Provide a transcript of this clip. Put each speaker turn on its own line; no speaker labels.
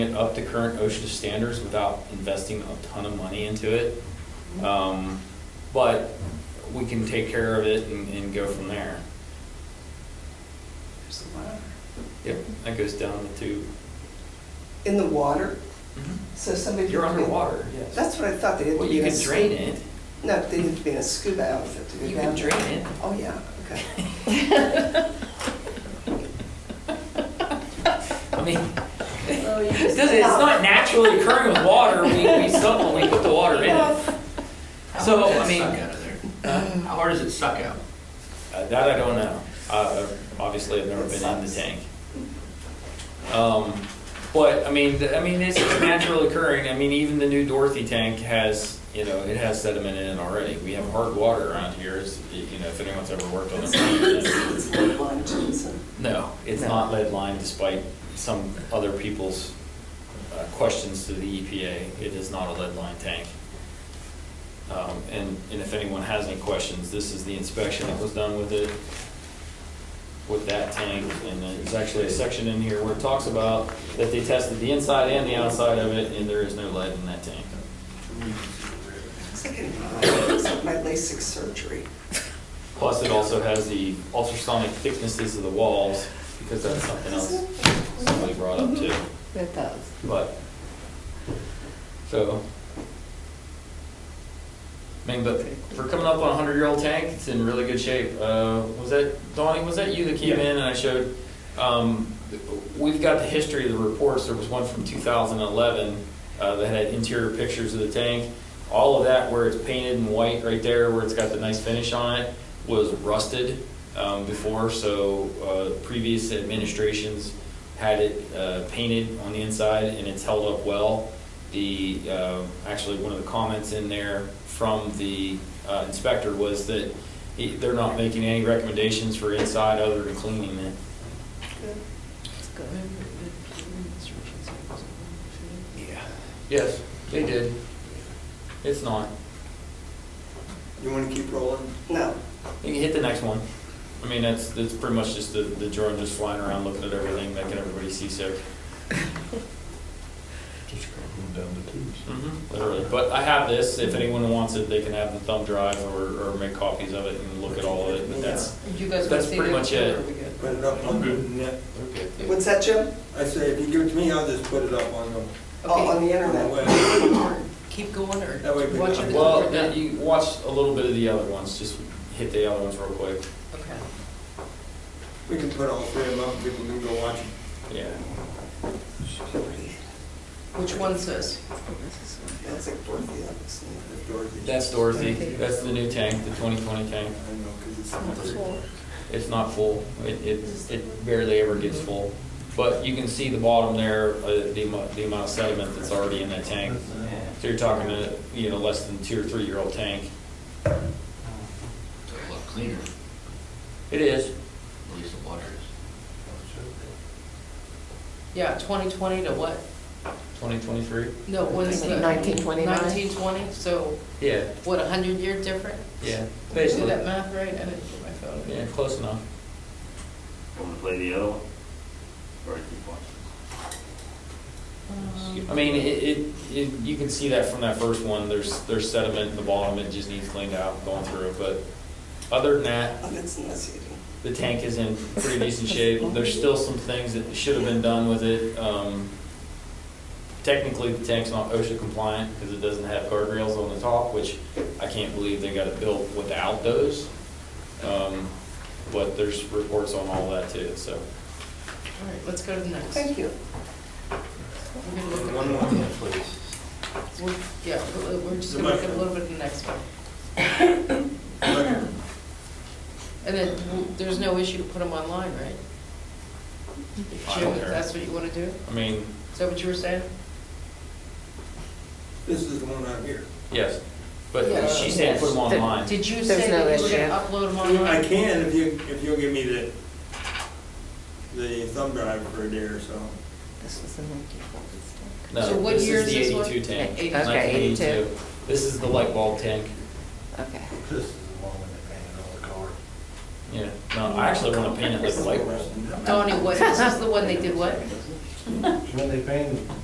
it up to current OSHA standards without investing a ton of money into it.
Mm-hmm. Uh,
Um, But we can take care of it and, and go from there.
There's a ladder.
Yep, that goes down to,
In the water, so somebody.
you're
could be-
underwater, yes.
That's what I thought, they didn't.
Well, you can drain it,
No, they didn't be in a scuba outfit to go
you can
down there.
drain it.
Oh, yeah, okay.
I mean,
Oh, you
it doesn't, it's not naturally occurring with water, we, we supplement, we put the water in it.
How
So,
hard
I
does it
mean-
Suck out of there. How hard does it suck out?
Uh, That I don't know. Uh, Obviously, I've never been in the tank. Um, But, I mean, th- I mean, it's naturally occurring. I mean, even the new Dorothy tank has, you know, it has sediment in it already. We have hard water around here, is- you know, if anyone's ever worked on it.
It's lead lined, Jensen.
No, it's not lead lined despite some other people's uh, questions to the EPA. It is not a lead lined tank. Um, And, and if anyone has any questions, this is the inspection that was done with it, with that tank. And then there's actually a section in here where it talks about that they tested the inside and the outside of it, and there is no lead in that tank.
It's like an- it's like my LASIK surgery.
Plus, it also has the ultrasonic thicknesses of the walls, because that's something else somebody brought up too.
Mm-hmm. It does.
But, so, I mean, but for coming up on a hundred-year-old tank, it's in really good shape. Uh, was that, Donnie, was that you that came in and I showed, um, we've got the history of the reports. There was one from two thousand and eleven, uh, that had interior pictures of the tank. All of that where it's painted in white right there, where it's got the nice finish on it, was rusted, um, before, so, uh, previous administrations had it uh, painted on the inside and it's held up well. The, uh, actually, one of the comments in there from the uh, inspector was that he- they're not making any recommendations for inside other than cleaning it.
It's good.
Yeah.
Yes, they did. It's not.
You want to keep rolling?
No,
You can hit the next one. I mean, that's, that's pretty much just the, the drone just flying around looking at everything, making everybody seasick.
Just going down the tubes.
Mm-hmm, Literally. But I have this, if anyone wants it, they can have the thumb drive or, or make copies of it and look at all of it, but that's,
You guys want
That's
to see
pretty
the-
much it.
or we good?
Put it up on the net.
okay.
what's that, Jim?
I say, if you give it to me, I'll just put it up on the
Oh, on the
on the
internet.
web.
Keep going or
That way we
watch
can-
it?
Well, yeah, you watch a little bit of the other ones, just hit the other ones real quick.
Okay.
We can put all three of them up, and people can go watch it.
Yeah.
Which one's this?
That's like Dorothy, that was-
That's Dorothy.
That's Dorothy. That's the new tank, the 2020 tank.
I know, because it's.
It's not full. It, it, it barely ever gets full. But you can see the bottom there, uh, the amount, the amount of sediment that's already in that tank. So you're talking a, you know, less than two or three-year-old tank.
It's a lot cleaner,
It is.
at least the water is.
Yeah, twenty twenty to what?
2023?
No, when's the?
1929.
Nineteen twenty, so
Yeah,
what, a hundred year different?
yeah.
Did I do
Basically,
that math right? I didn't put my phone in.
yeah, close enough.
Want to play the other one? Or keep watching?
Um,
I mean, it, it, it, you can see that from that first one, there's, there's sediment in the bottom, it just needs cleaned out, going through it, but other than that,
Oh, that's nauseating.
the tank is in pretty decent shape, there's still some things that should have been done with it, um, technically, the tank's not OSHA compliant, because it doesn't have guardrails on the top, which I can't believe they got it built without those, um, but there's reports on all that too, so.
All right, let's go to the next.
Thank you.
We're gonna look at-
One more.
we're- Yeah, we're we're just gonna look at a little bit of the next one. And then, w- there's no issue to put them online, right?
I
Jim,
don't
if
care.
that's what you wanna do?
I mean,
Is that what you were saying?
This is the one out here.
yes, but she said put them online.
Did you
There's
say
no
that you were
issue.
gonna upload them
I
online?
can if you, if you'll give me the, the thumb drive for a day or so.
This was the Nike Fold
So
No,
what
this
year
is
is
the
this one?
eighty-two tank.
Okay,
1982.
82.
This is the light bulb tank.
stick. Okay.
This is the one when they painted all the car.
Yeah, no, I actually want to paint it like a light bulb.
Donnie, what, this is the one they did what?
When they painted